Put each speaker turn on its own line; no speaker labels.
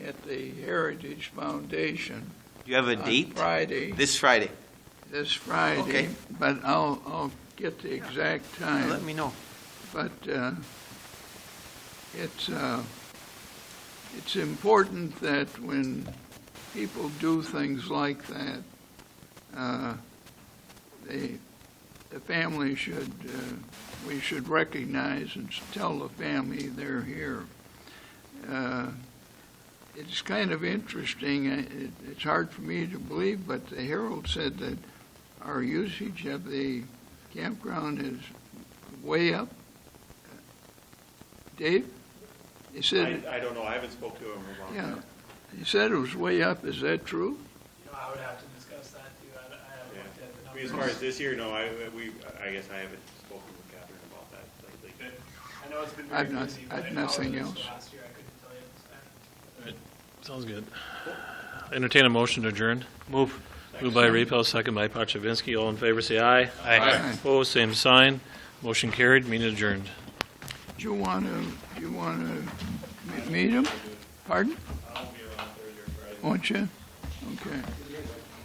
at the Heritage Foundation
Do you have a
on
date?
Friday,
This Friday.
this Friday.
Okay.
But I'll, I'll get the exact
Let
time,
me know.
but uh, it's, uh, it's important that when people do things like that, uh, they, the family should, uh, we should recognize and tell the family they're here. Uh, It's kind of interesting, I- it- it's hard for me to believe, but the Herald said that our usage of the campground is way up. Dave? He said,
I, I don't know, I haven't spoke to him about
yeah,
that.
he said it was way up, is that true?
You know, I would have to discuss that too. I, I haven't looked at the
I mean, as
numbers.
far as this year, no, I, we, I guess I haven't spoken with Catherine about that lately.
But I know it's been very
I've not-
busy. but
I've
how it
nothing
was
else.
Last year, I couldn't tell you.
Sounds good. Entertain a motion to adjourn. Move. Moved by Repel, second by Pachivinsky. All in favor, say aye.
Aye.
Opposed, same sign. Motion carried, meeting adjourned.
Do you want to, do you want to meet him? Pardon?
I'll be around Thursday or Friday.
Won't you? Okay.